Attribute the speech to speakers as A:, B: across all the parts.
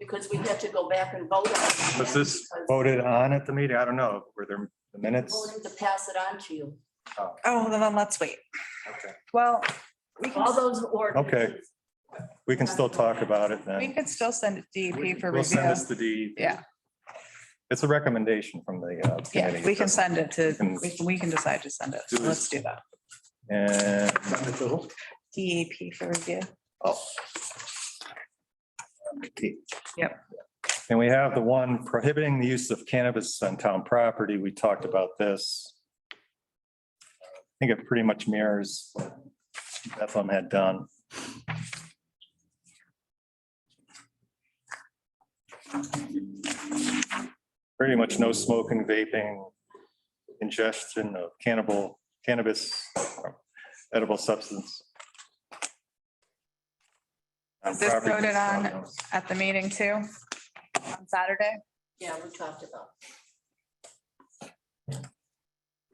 A: because we had to go back and vote on it.
B: Was this
A: because-
B: voted on at the meeting? I don't know. Were there the minutes?
A: Voted to pass it on to you.
C: Oh, then then let's wait.
B: Okay.
C: Well, we
A: All
C: can,
A: those ordinances.
B: We can still talk about it
C: we
B: then.
C: could still send it to DEP for
B: We'll send
C: review.
B: this to DEP.
C: Yeah.
B: It's a recommendation from the. uh,
C: Yeah,
B: committee.
C: we can send it to,
B: can-
C: we can- we can decide to send it. So Let's do that.
B: And
D: Send it to who?
C: DEP for review.
B: and we have the one prohibiting the use of cannabis on town property. We talked about this. I think it pretty much mirrors what Bethlehem had done. Pretty much no smoking, vaping, ingestion of cannibal, cannabis, edible substance.
C: Is this
B: property.
C: voted on? At the meeting too, on Saturday.
A: Yeah, we talked about.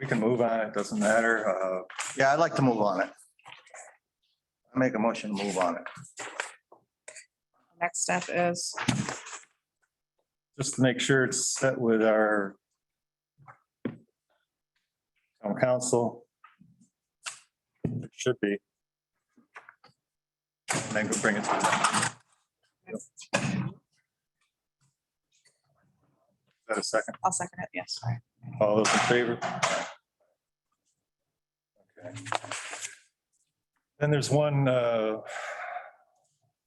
B: We can move on, it doesn't matter. Uh,
D: Yeah, I'd like to move on it. I Make a motion, to move on it.
C: Next step is,
B: Just to make sure it's set with our town council. It Should be. And then we'll bring it to. Is that a second?
C: I'll second it, yes.
B: All those in favor? Okay. Then there's one uh,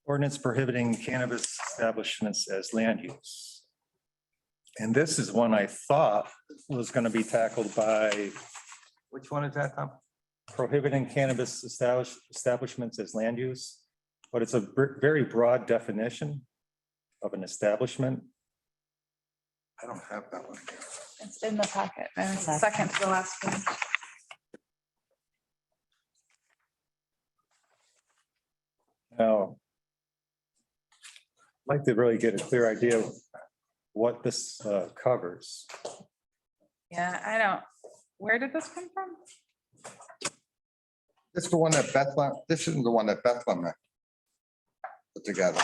B: ordinance prohibiting cannabis establishments as land use. And this is one I thought was going to be tackled by
D: Which one is that, Tom?
B: prohibiting cannabis establish- establishments as land use. But it's a br- very broad definition of an establishment.
D: I don't have that one.
C: It's in the packet and it's second to the last one.
B: Now, I'd like to really get a clear idea of what this uh, covers.
C: Yeah, I don't, where did this come from?
E: This is the one that Bethlehem, this isn't the one that Bethlehem put together.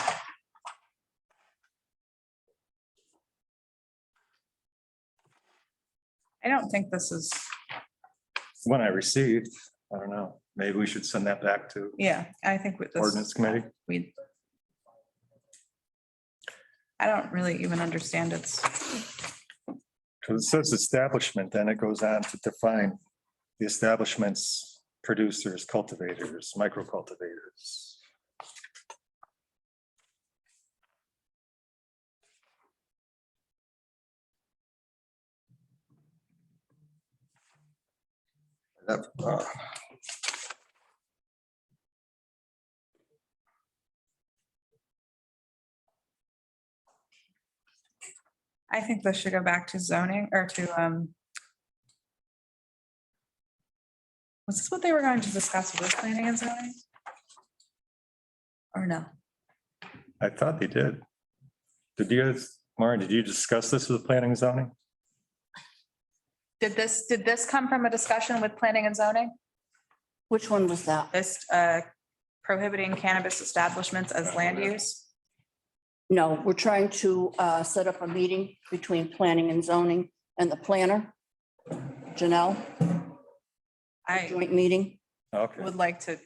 C: I don't think this is,
B: When I received, I don't know, maybe we should send that back to
C: yeah, I think with this.
B: ordinance committee.
C: we. I don't really even understand its,
B: Because it says establishment, then it goes on to define the establishments, producers, cultivators, micro cultivators.
E: That, uh,
C: I think this should go back to zoning or to, um. Was this what they were going to discuss with planning and zoning? Or no?
B: I thought they did. Did you guys, Maureen, did you discuss this with planning and zoning?
C: Did this, did this come from a discussion with planning and zoning?
A: Which one was that?
C: This, uh, prohibiting cannabis establishments as land use?
A: No, we're trying to uh, set up a meeting between planning and zoning and the planner. Janelle,
C: I
A: joint meeting.
B: Okay.
C: would like to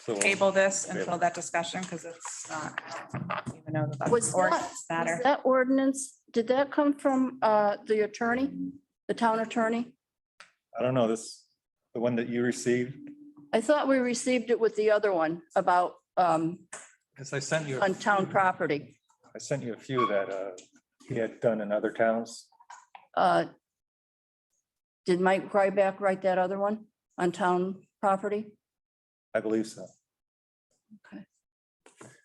B: so we'll-
C: table this until
B: Table.
C: that discussion, because it's not, I don't even know that that's
A: Was
C: an
A: that-
C: ordinance
A: Was
C: matter.
A: That ordinance, did that come from uh, the attorney, the town attorney?
B: I don't know, this, the one that you received?
A: I thought we received it with the other one about um,
B: Because I sent you. a
A: on town property.
B: I sent you a few that uh, he had done in other towns.
A: Uh, Did Mike Ryback write that other one on town property?
B: I believe so.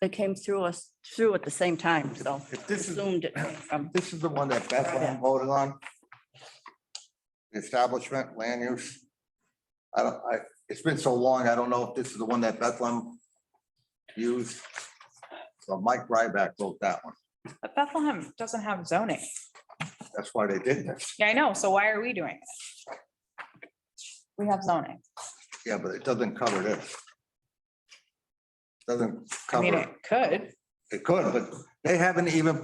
A: It came through us, through at the same time, so
E: If this is,
A: assumed it came from.
E: this is the one that Bethlehem voted on. Establishment, land use. I don't, I, it's been so long, I don't know if this is the one that Bethlehem used. So Mike Ryback wrote that one.
C: But Bethlehem doesn't have zoning.
E: That's why they did this.
C: Yeah, I know. So why are we doing it? We have zoning.
E: Yeah, but it doesn't cover this. Doesn't
C: I mean,
E: cover, Uh-huh.
C: it could.
E: it could, but they haven't even